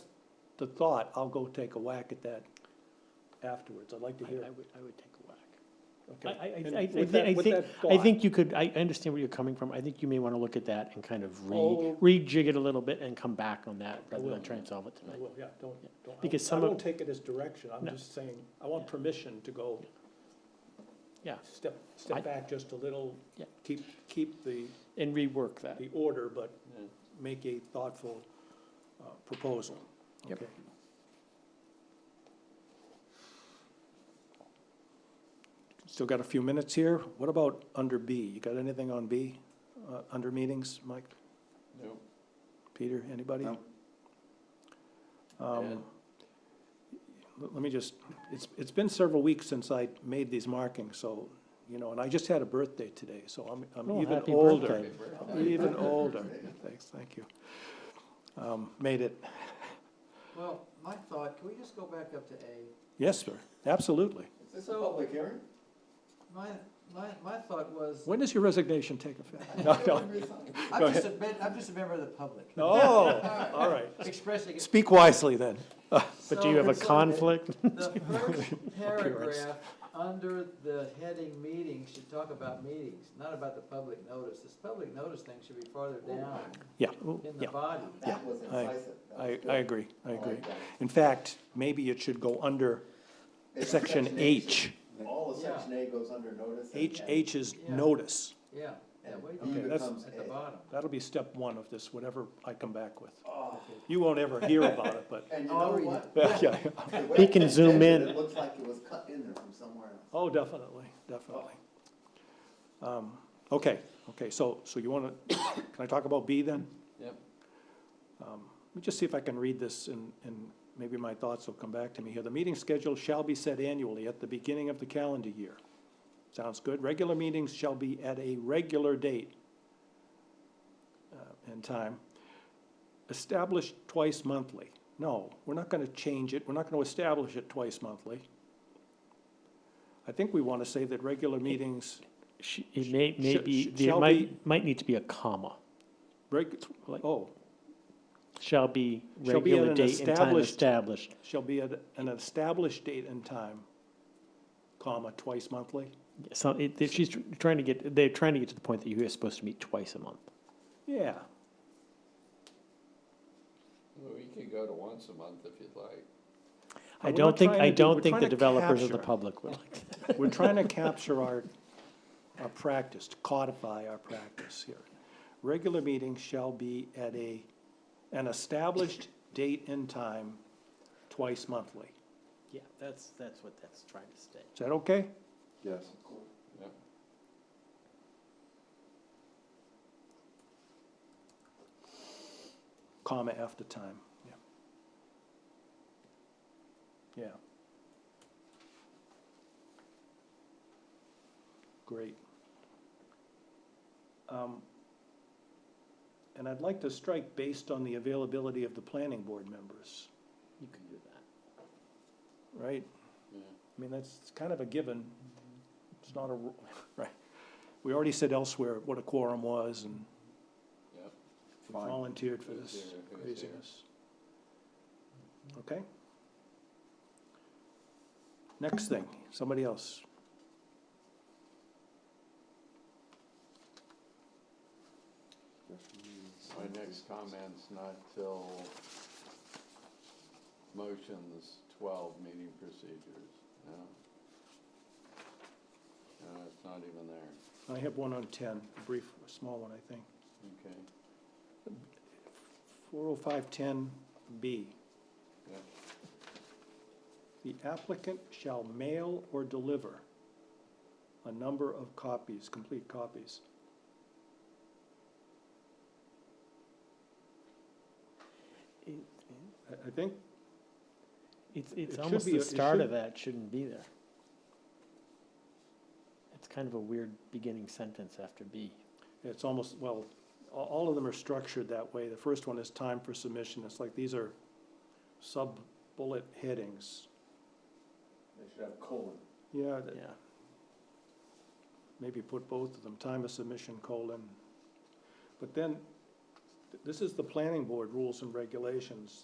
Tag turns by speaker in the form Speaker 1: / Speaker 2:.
Speaker 1: the thought, I'll go take a whack at that afterwards. I'd like to
Speaker 2: I
Speaker 1: hear.
Speaker 2: I would, I would take a whack. I,
Speaker 1: okay.
Speaker 2: I, I-
Speaker 1: And
Speaker 2: I, I
Speaker 1: with
Speaker 2: think,
Speaker 1: that-
Speaker 2: I
Speaker 1: with
Speaker 2: think,
Speaker 1: that
Speaker 2: I
Speaker 1: thought-
Speaker 2: think you could, I I understand where you're coming from, I think you may wanna look at that and kind of
Speaker 1: Oh.
Speaker 2: re, rejig it a little bit and come back on that, rather
Speaker 1: will.
Speaker 2: than try and solve it
Speaker 1: I
Speaker 2: tonight.
Speaker 1: will, Yeah, don't, don't, I
Speaker 2: Because
Speaker 1: won't- I
Speaker 2: some of-
Speaker 1: won't take it as direction. I'm
Speaker 2: No.
Speaker 1: just saying, I want
Speaker 2: Yeah.
Speaker 1: permission to go.
Speaker 2: Yeah.
Speaker 1: Step,
Speaker 2: I-
Speaker 1: step back just a little.
Speaker 2: Yeah.
Speaker 1: Keep, keep the,
Speaker 2: And rework that.
Speaker 1: the order, but make a thoughtful uh, proposal.
Speaker 2: Yep.
Speaker 1: Okay. Still got a few minutes here. What about under B? You got anything on B, uh, under meetings, Mike?
Speaker 3: No.
Speaker 1: Peter, anybody?
Speaker 3: No.
Speaker 1: Um,
Speaker 3: Ed?
Speaker 1: Let let me just, it's, it's been several weeks since I made these markings, so, you know, and I just had a birthday today, so I'm, I'm
Speaker 2: Oh,
Speaker 1: even
Speaker 2: happy
Speaker 1: older.
Speaker 2: birthday.
Speaker 1: I'm Even older. Thanks, thank you. Um, Made it.
Speaker 4: Well, my thought, can we just go back up to A?
Speaker 1: Yes, sir, absolutely.
Speaker 3: Is this a public hearing?
Speaker 4: My, my, my thought was,
Speaker 1: When does your resignation take effect? No, no. go
Speaker 4: I'm just a, mem- I'm just a member of the public,
Speaker 1: Oh, all right.
Speaker 4: expressing it.
Speaker 1: Speak wisely then.
Speaker 2: But do you have a
Speaker 4: So-
Speaker 2: conflict?
Speaker 4: The first paragraph under the heading meetings should talk about meetings, not about the public notice. This public notice thing should be farther down
Speaker 1: Yeah, oh,
Speaker 4: in the
Speaker 1: yeah,
Speaker 4: body.
Speaker 3: That was
Speaker 1: I-
Speaker 3: incisive. That
Speaker 1: I,
Speaker 3: was
Speaker 1: I
Speaker 3: good.
Speaker 1: agree, I agree.
Speaker 3: like that.
Speaker 1: In fact, maybe it should go under
Speaker 3: It's
Speaker 1: section
Speaker 3: A.
Speaker 1: H.
Speaker 3: All of
Speaker 4: Yeah.
Speaker 3: section A goes under notice. and-
Speaker 1: H,
Speaker 3: and-
Speaker 1: H is
Speaker 4: Yeah.
Speaker 1: notice.
Speaker 4: Yeah, yeah, way
Speaker 3: Okay,
Speaker 4: down
Speaker 1: that's-
Speaker 4: at the
Speaker 3: A.
Speaker 4: bottom.
Speaker 1: That'll be step one of this, whatever I come back with.
Speaker 3: Oh,
Speaker 1: You won't ever hear about it, but,
Speaker 3: And you
Speaker 4: I'll
Speaker 3: know
Speaker 4: read
Speaker 3: what?
Speaker 1: yeah, yeah.
Speaker 3: The way
Speaker 2: He can
Speaker 3: it's
Speaker 2: zoom
Speaker 3: edited,
Speaker 2: in.
Speaker 3: It looks like it was cut in there from somewhere else.
Speaker 1: Oh, definitely, definitely. Um, Okay, okay, so, so you want to, can I talk about B then?
Speaker 3: Yep.
Speaker 1: Um, Let me just see if I can read this and, and maybe my thoughts will come back to me here. The meeting schedule shall be set annually at the beginning of the calendar year. Sounds good. Regular meetings shall be at a regular date uh, and time. Established twice monthly. No, we're not going to change it. We're not going to establish it twice monthly. I think we want to say that regular meetings,
Speaker 2: Sh- It may, may
Speaker 1: Sh-
Speaker 2: be,
Speaker 1: sh-
Speaker 2: there
Speaker 1: shall
Speaker 2: might, might need to be a comma,
Speaker 1: reg, oh,
Speaker 2: shall be
Speaker 1: Shall be at
Speaker 2: regular
Speaker 1: an
Speaker 2: date and time
Speaker 1: established-
Speaker 2: established.
Speaker 1: shall be at an established date and time, comma, twice monthly.
Speaker 2: So it, if she's tr- trying to get, they're trying to get to the point that you are supposed to meet twice a month.
Speaker 1: Yeah,
Speaker 5: We could go to once a month if you'd like.
Speaker 1: We're
Speaker 2: I
Speaker 1: not
Speaker 2: don't think,
Speaker 1: trying
Speaker 2: I
Speaker 1: to do- we're
Speaker 2: don't think
Speaker 1: trying
Speaker 2: the
Speaker 1: to
Speaker 2: developers of the
Speaker 1: capture.
Speaker 2: public would like that.
Speaker 1: we're trying to capture our, our practice, to codify our practice here. Regular meetings shall be at a, an established date and time, twice monthly.
Speaker 2: Yeah, that's, that's what that's trying to state.
Speaker 1: Is that okay?
Speaker 3: Yes.
Speaker 1: Comma after time, yeah. Yeah. Great. Um, And I'd like to strike based on the availability of the planning board members,
Speaker 2: You can do that.
Speaker 1: right? I mean, that's it's kind of a given. It's not a, ru- right. We already said elsewhere what a quorum was and
Speaker 5: Yep.
Speaker 1: we
Speaker 3: Fine.
Speaker 1: volunteered for
Speaker 5: Who's
Speaker 1: this,
Speaker 5: here, who's here?
Speaker 1: craziness. Okay? Next thing, somebody else.
Speaker 5: My next comment's not till motions twelve, meeting procedures, no. No, it's not even there,
Speaker 1: I have one on ten, a brief, a small one, I think.
Speaker 5: okay,
Speaker 1: Four oh five ten B.
Speaker 5: yeah.
Speaker 1: The applicant shall mail or deliver a number of copies, complete copies. I, I think
Speaker 2: It's,
Speaker 1: It
Speaker 2: it's
Speaker 1: should
Speaker 2: almost
Speaker 1: be a-
Speaker 2: the
Speaker 1: it
Speaker 2: start
Speaker 1: should-
Speaker 2: of that shouldn't be there. It's kind of a weird beginning sentence after B.
Speaker 1: It's almost, well, a- all of them are structured that way. The first one is time for submission. It's like, these are sub-bullet headings.
Speaker 3: They should have colon.
Speaker 1: Yeah,
Speaker 2: Yeah,
Speaker 1: that- maybe put both of them, time of submission, colon. But then, th- this is the planning board rules and regulations.